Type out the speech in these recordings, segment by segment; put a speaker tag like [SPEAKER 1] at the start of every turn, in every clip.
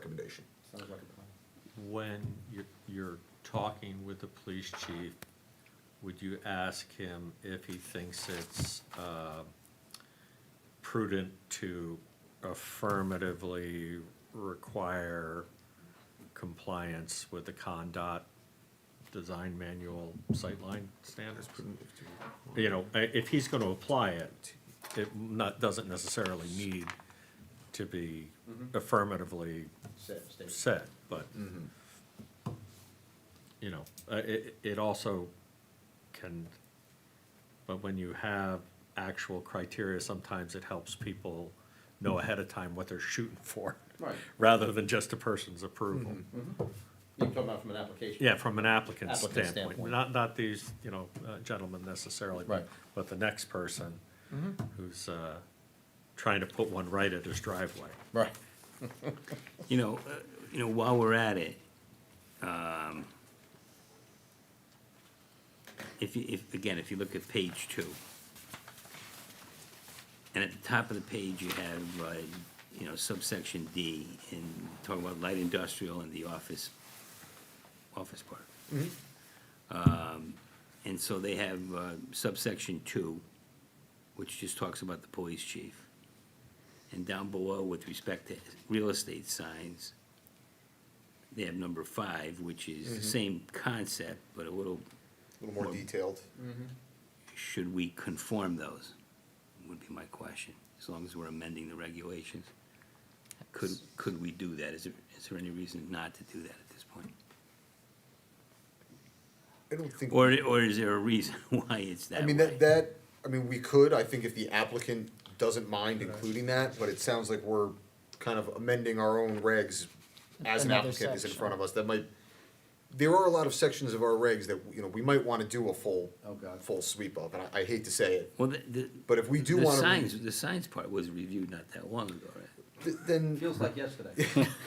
[SPEAKER 1] recommendation.
[SPEAKER 2] Sounds like a plan.
[SPEAKER 3] When you're, you're talking with the police chief, would you ask him if he thinks it's uh, prudent to affirmatively require compliance with the Condot Design Manual Sightline Standards? You know, i- if he's gonna apply it, it not, doesn't necessarily need to be affirmatively
[SPEAKER 2] Set, state.
[SPEAKER 3] set, but, you know, uh, it, it also can, but when you have actual criteria, sometimes it helps people know ahead of time what they're shooting for,
[SPEAKER 2] Right.
[SPEAKER 3] rather than just a person's approval.
[SPEAKER 2] You're talking about from an application?
[SPEAKER 3] Yeah, from an applicant's
[SPEAKER 2] Applicant's
[SPEAKER 3] standpoint,
[SPEAKER 2] standpoint.
[SPEAKER 3] not, not these, you know, uh, gentlemen necessarily, but,
[SPEAKER 2] Right.
[SPEAKER 3] but the next person who's, uh, trying to put one right at his driveway.
[SPEAKER 2] Right.
[SPEAKER 4] You know, uh, you know, while we're at it, um, if you, if, again, if you look at page two, and at the top of the page, you have, uh, you know, subsection D, and talking about light industrial and the office, office park. Um, and so they have uh, subsection two, which just talks about the police chief. And down below, with respect to real estate signs, they have number five, which is
[SPEAKER 1] Mm-hmm.
[SPEAKER 4] the same concept, but a little,
[SPEAKER 1] A little more detailed.
[SPEAKER 4] should we conform those? Would be my question, as long as we're amending the regulations. Could, could we do that? Is there, is there any reason not to do that at this point?
[SPEAKER 1] I don't think.
[SPEAKER 4] Or, or is there a reason why it's that
[SPEAKER 1] I
[SPEAKER 4] way?
[SPEAKER 1] mean, that, that, I mean, we could, I think if the applicant doesn't mind including that, but it sounds like we're kind of amending our own regs as an
[SPEAKER 5] Another
[SPEAKER 1] applicant is in
[SPEAKER 5] section.
[SPEAKER 1] front of us, that might, there are a lot of sections of our regs that, you know, we might wanna do a full,
[SPEAKER 2] Oh, God.
[SPEAKER 1] full sweep of, and I, I hate to say it,
[SPEAKER 4] Well, the, the.
[SPEAKER 1] but if we do
[SPEAKER 4] The
[SPEAKER 1] wanna. re-
[SPEAKER 4] signs, the signs part was reviewed not that long ago, right?
[SPEAKER 1] th- Then.
[SPEAKER 2] Feels like yesterday.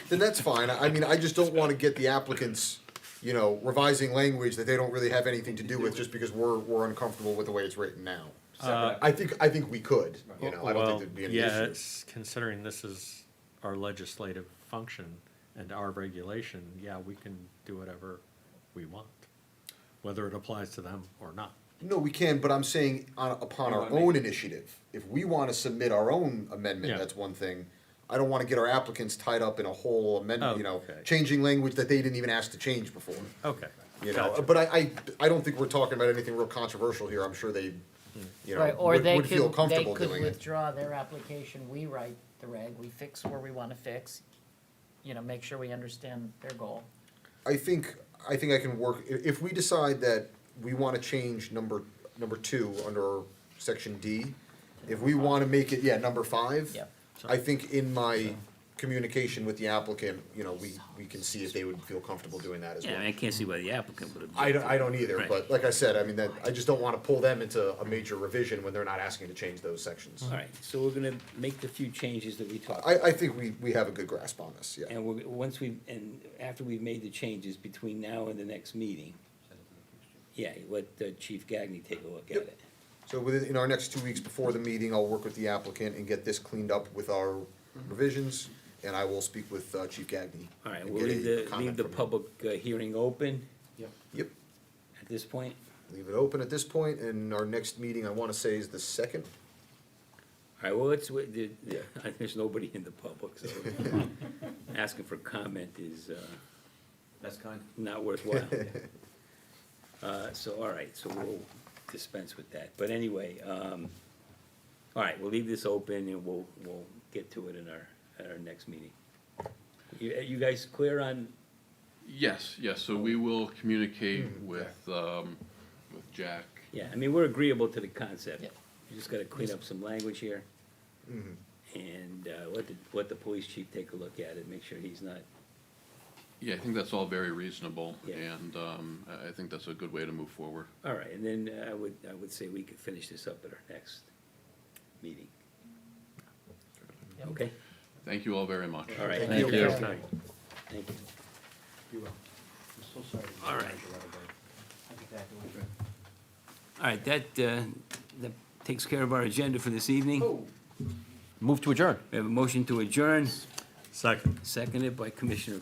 [SPEAKER 1] then that's fine. I mean, I just don't want to get the applicants, you know, revising language that they don't really have anything to do with just because we're, we're uncomfortable with the way it's written now.
[SPEAKER 2] Separate.
[SPEAKER 1] I think, I think we could, you know, I don't
[SPEAKER 3] Well,
[SPEAKER 1] think there'd be any
[SPEAKER 3] yeah,
[SPEAKER 1] issue.
[SPEAKER 3] it's- Considering this is our legislative function and our regulation, yeah, we can do whatever we want, whether it applies to them or not.
[SPEAKER 1] No, we can, but I'm saying on, upon our
[SPEAKER 2] Well, I
[SPEAKER 1] own initiative, if we want to submit our own amendment,
[SPEAKER 3] Yeah.
[SPEAKER 1] that's one thing. I don't want to get our applicants tied up in a whole amendment, you know,
[SPEAKER 3] Oh, Okay.
[SPEAKER 1] changing language that they didn't even ask to change before.
[SPEAKER 3] Okay.
[SPEAKER 1] You know,
[SPEAKER 3] gotcha.
[SPEAKER 1] but I, I, I don't think we're talking about anything real controversial here. I'm sure they, you
[SPEAKER 5] Right,
[SPEAKER 1] know,
[SPEAKER 5] or
[SPEAKER 1] would,
[SPEAKER 5] they
[SPEAKER 1] would feel
[SPEAKER 5] could, they
[SPEAKER 1] comfortable doing it.
[SPEAKER 5] could withdraw their application, we write the reg, we fix where we wanna fix, you know, make sure we understand their goal.
[SPEAKER 1] I think, I think I can work, i- if we decide that we wanna change number, number two under section D, if we wanna make it, yeah, number five.
[SPEAKER 5] Yep.
[SPEAKER 1] I think in my communication with the applicant, you know, we, we can see if they would feel comfortable doing that as
[SPEAKER 4] Yeah, I mean, I
[SPEAKER 1] well.
[SPEAKER 4] can't see why the applicant would object.
[SPEAKER 1] I don't,
[SPEAKER 4] to
[SPEAKER 1] I
[SPEAKER 4] it.
[SPEAKER 1] don't either,
[SPEAKER 4] Right.
[SPEAKER 1] but like I said, I mean, that, I just don't wanna pull them into a major revision when they're not asking to change those sections.
[SPEAKER 4] All right, so we're gonna make the few changes that we talked.
[SPEAKER 1] I,
[SPEAKER 4] about.
[SPEAKER 1] I think we, we have a good grasp on this, yeah.
[SPEAKER 4] And we're, once we, and after we've made the changes between now and the next meeting, yeah, let uh, Chief Gagnon take a look at
[SPEAKER 1] Yep.
[SPEAKER 4] it.
[SPEAKER 1] So within, in our next two weeks before the meeting, I'll work with the applicant and get this cleaned up with our revisions, and I will speak with uh, Chief Gagnon.
[SPEAKER 4] Mm-hmm. All right,
[SPEAKER 1] and
[SPEAKER 4] we'll
[SPEAKER 1] get
[SPEAKER 4] leave
[SPEAKER 1] a
[SPEAKER 4] the,
[SPEAKER 1] comment
[SPEAKER 4] leave the
[SPEAKER 1] from him.
[SPEAKER 4] public uh, hearing open
[SPEAKER 2] Yep.
[SPEAKER 1] Yep,
[SPEAKER 4] at this point.
[SPEAKER 1] leave it open at this point, and our next meeting, I wanna say, is the second.
[SPEAKER 4] All right, well, it's, with the-
[SPEAKER 1] Yeah.
[SPEAKER 4] there's nobody in the public, so asking for comment is uh,
[SPEAKER 2] That's kind.
[SPEAKER 4] not worthwhile. Uh, So, all right, so we'll dispense with that. But anyway, um, all right, we'll leave this open and we'll, we'll get to it in our, at our next meeting. You, you guys clear on,
[SPEAKER 6] Yes, yes, so we will communicate with, um, with Jack.
[SPEAKER 4] yeah, I mean, we're agreeable to the concept.
[SPEAKER 5] Yeah.
[SPEAKER 4] You just gotta clean up some language here. And uh, let the, let the police chief take a look at it, make sure he's not,
[SPEAKER 6] Yeah, I think that's all very reasonable,
[SPEAKER 4] Yeah.
[SPEAKER 6] and, um, I, I think that's a good way to move forward.
[SPEAKER 4] all right, and then I would, I would say we could finish this up at our next meeting.
[SPEAKER 5] Yep.
[SPEAKER 4] Okay,
[SPEAKER 6] Thank you all very much.
[SPEAKER 4] all right.
[SPEAKER 1] Thank you.
[SPEAKER 4] Thank you.
[SPEAKER 2] You will. I'm so sorry. to
[SPEAKER 4] All
[SPEAKER 2] interrupt
[SPEAKER 4] right.
[SPEAKER 2] you the other day. I think that was-
[SPEAKER 4] All right, that, uh, that takes care of our agenda for this evening.
[SPEAKER 2] Oh.
[SPEAKER 4] Move to adjourn. We have a motion to adjourn.
[SPEAKER 3] Second.
[SPEAKER 4] Seconded by Commissioner